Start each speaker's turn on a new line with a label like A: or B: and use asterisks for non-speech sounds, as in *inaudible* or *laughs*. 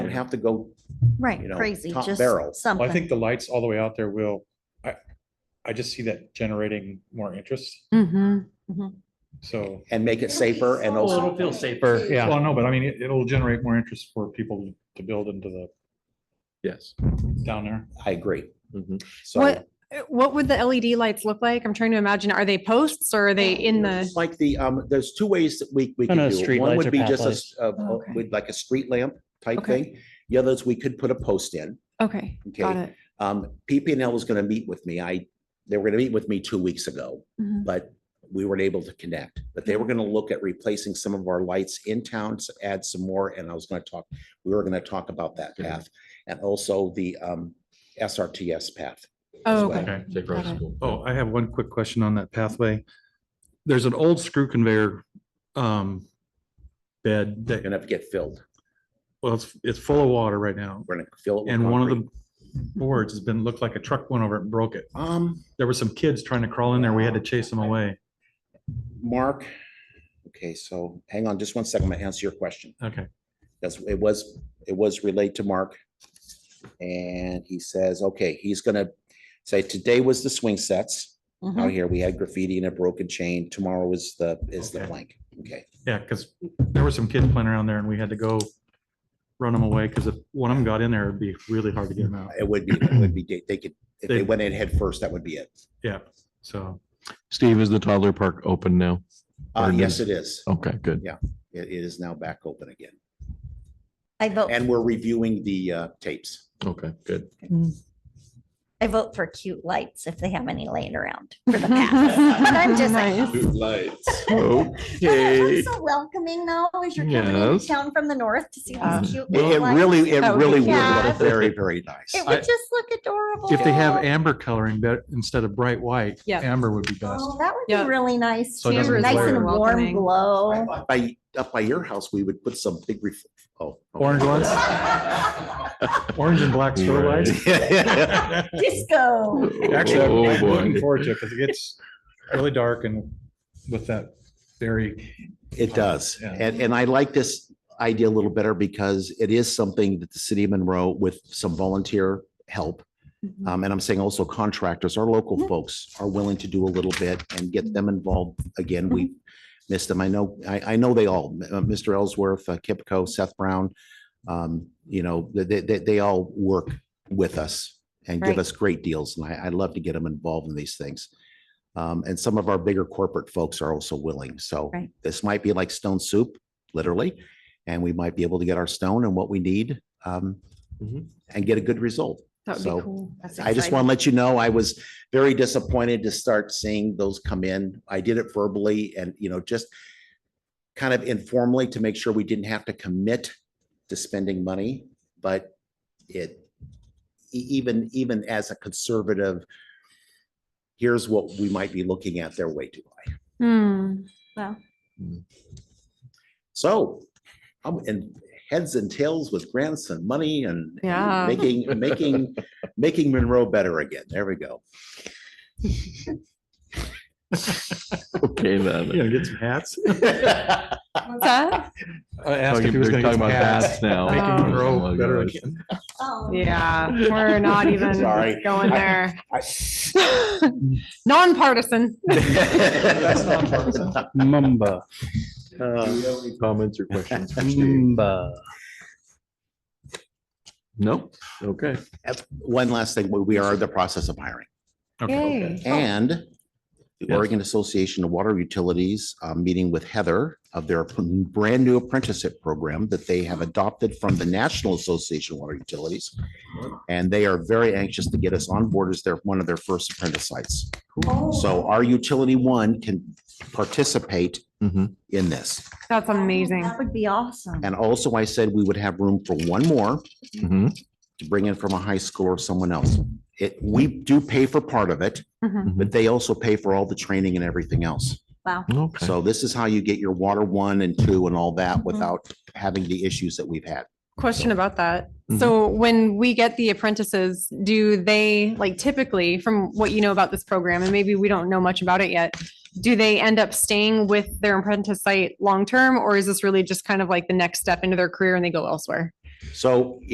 A: don't have to go,
B: Right,
A: you know,
B: crazy,
A: top
B: just
A: barrel. Well, I
B: something.
C: Well, I think the lights all the way out there will, I, I just see that generating more interest,
B: Mhm.
C: so.
A: and make it safer and
D: Well,
A: also,
D: it'll feel safer, yeah.
C: Well, no, but I mean, it- it'll generate more interest for people to build into the,
D: Yes.
C: down there.
A: I agree. Mm-hmm.
D: Mhm.
A: So.
E: What, Uh, what would the LED lights look like? I'm trying to imagine, are they posts or are they in the,
A: It's Like the, um, there's two ways that we, we
F: No,
A: could
F: no,
A: do it.
F: street
A: One
F: lights
A: would
F: or
A: be
F: path
A: just a,
F: lights.
A: s- a-
E: Oh,
A: a-
E: okay.
A: with like a street lamp type
E: Okay.
A: thing. The other is we could put a post in.
E: okay, got
A: Okay.
E: it.
A: Um, PPNL was gonna meet with me. I, they were gonna meet with me two weeks ago,
E: Mhm.
A: but we weren't able to connect. But they were gonna look at replacing some of our lights in town, s- add some more, and I was gonna talk, we were gonna talk about that
F: Mm-hmm.
D: Good.
A: path. And also the, um, SRTS path.
E: Oh,
A: well.
E: okay.
D: Safe roads
E: Got
D: is
E: it.
D: cool.
C: Oh, I have one quick question on that pathway. There's an old screw conveyor, um, bed
A: We're Gonna have to get filled.
C: well, it's, it's full of water right now.
A: We're gonna fill it. with
C: And one of
A: concrete.
C: the boards has been, looked like a truck went over it and broke it.
A: Um,
C: There were some kids trying to crawl in there. We had to chase them away.
A: Mark, okay, so hang on just one second. I'm gonna answer your question.
C: Okay.
A: That's, it was, it was relayed to Mark. And he says, okay, he's gonna say today was the swing sets.
B: Mhm.
A: Out here, we had graffiti and a broken chain. Tomorrow is the, is the
C: Okay.
A: blank. Okay,
C: Yeah, because there were some kids playing around there and we had to go run them away because if one of them got in there, it'd be really hard to get them out.
A: it would be, it would be, they- they could, if they
C: They-
A: went in head first, that would be it.
C: Yeah, so.
D: Steve, is the toddler park open now?
A: Uh,
D: Pardon me.
A: yes, it is.
C: Oh.
D: Okay, good.
A: It it is now back open again.
B: I vote,
A: And we're reviewing the uh, tapes.
D: Okay, good. *laughs*
B: I vote for cute lights if they have any laying around for
E: *laughs*
B: the path. But I'm just like, Well, there's one
D: Okay.
B: So welcoming though, as you're coming into
D: Yes.
B: town from the north to see
E: Yeah.
B: these cute
A: It
B: little
A: it
B: lights.
A: really, it
E: Oh,
A: really would
B: yeah.
A: look very, very nice.
B: It
C: I-
B: would just look adorable. Oh,
C: If they have amber coloring, but instead of bright white,
E: Yeah.
C: amber would be best.
B: Oh, That would
E: Yeah.
B: be really nice.
C: So it
B: too.
C: doesn't
B: Nice
C: glare.
B: and warm
E: Welcoming.
B: glow.
A: By, up by your house, we would put some big, ref- oh. okay.
C: Orange
D: *laughs*
C: ones, orange and black store
D: Right.
C: lights.
B: Disco.
C: *laughs* Actually, I'm-
D: Oh,
C: I'm looking
D: boy.
C: forward to it because it gets really dark and with that very,
A: *laughs* It does.
C: Yeah.
A: And, and I like this idea a little better because it is something that the city of Monroe with some volunteer help.
E: Mhm.
A: Um, and I'm saying also contractors, our local
B: Mhm.
A: folks are willing to do a little bit and get them involved. Again, we missed them. I know, I, I know they all, uh, Mr. Ellsworth, uh, Kipco, Seth Brown. Um, you know, they, they- they, they all work with us and give
E: Right.
A: us great deals. And I, I love to get them involved in these things. Um, and some of our bigger corporate folks are also willing. So
B: Right.
A: this might be like stone soup, literally. And we might be able to get our stone and what we need, um,
D: Mhm.
A: and get a good result.
E: That would
A: So-
E: be cool.
A: I just want to let you know, I was very disappointed to start seeing those come in. I did it verbally and, you know, just kind of informally to make sure we didn't have to commit to spending money, but it e- even, even as a conservative, here's what we might be looking at, they're way too high.
E: Hmm,
A: So, I'm in heads and tails with grants and money and and
E: Yeah.
A: making, making, making Monroe better again. There we go.
D: *laughs* Okay,
C: you
D: then.
C: know, get some hats.
E: what's that?
C: I
D: Oh,
C: asked if
D: you-
C: he was
D: we're
C: gonna get
D: talking
C: some
D: about
C: hats.
D: bats now.
E: Making Oh.
C: Monroe
D: Oh my
C: better
D: gosh.
C: again.
E: *laughs* Yeah,
A: *laughs*
E: we're not even
A: Sorry.
E: going
A: I-
E: there.
A: I-
E: *laughs* Nonpartisan.
A: Uh,
F: Mumba,
D: Comments or questions? *laughs*
F: Mumba.
D: Nope. Okay.
A: One last thing, we we are in the process of hiring
C: Okay.
E: Yay.
A: and the
D: Yes.
A: Oregon Association of Water Utilities, uh, meeting with Heather of their p- brand new apprenticeship program that they have adopted from the National Association of Water Utilities. And they are very anxious to get us on board as their, one of their first apprentice sites.
B: Oh,
A: So our utility one can participate
C: Mm-hmm.
D: Mhm.
A: in this.
E: That's amazing.
B: That would be awesome.
A: And also I said we would have room for one more.
D: Mhm.
A: to bring in from a high school or someone else. It, we do pay for part of it,
E: Mhm.
A: but they also pay for all the training and everything else.
B: Wow.
D: Okay.
A: So this is how you get your water one and two and all that
B: Mhm.
A: without having the issues that we've had.
E: Question about that.
D: Mhm.
E: So when we get the apprentices, do they like typically from what you know about this program and maybe we don't know much about it yet? Do they end up staying with their apprentice site long term or is this really just kind of like the next step into their career and they go elsewhere?
A: So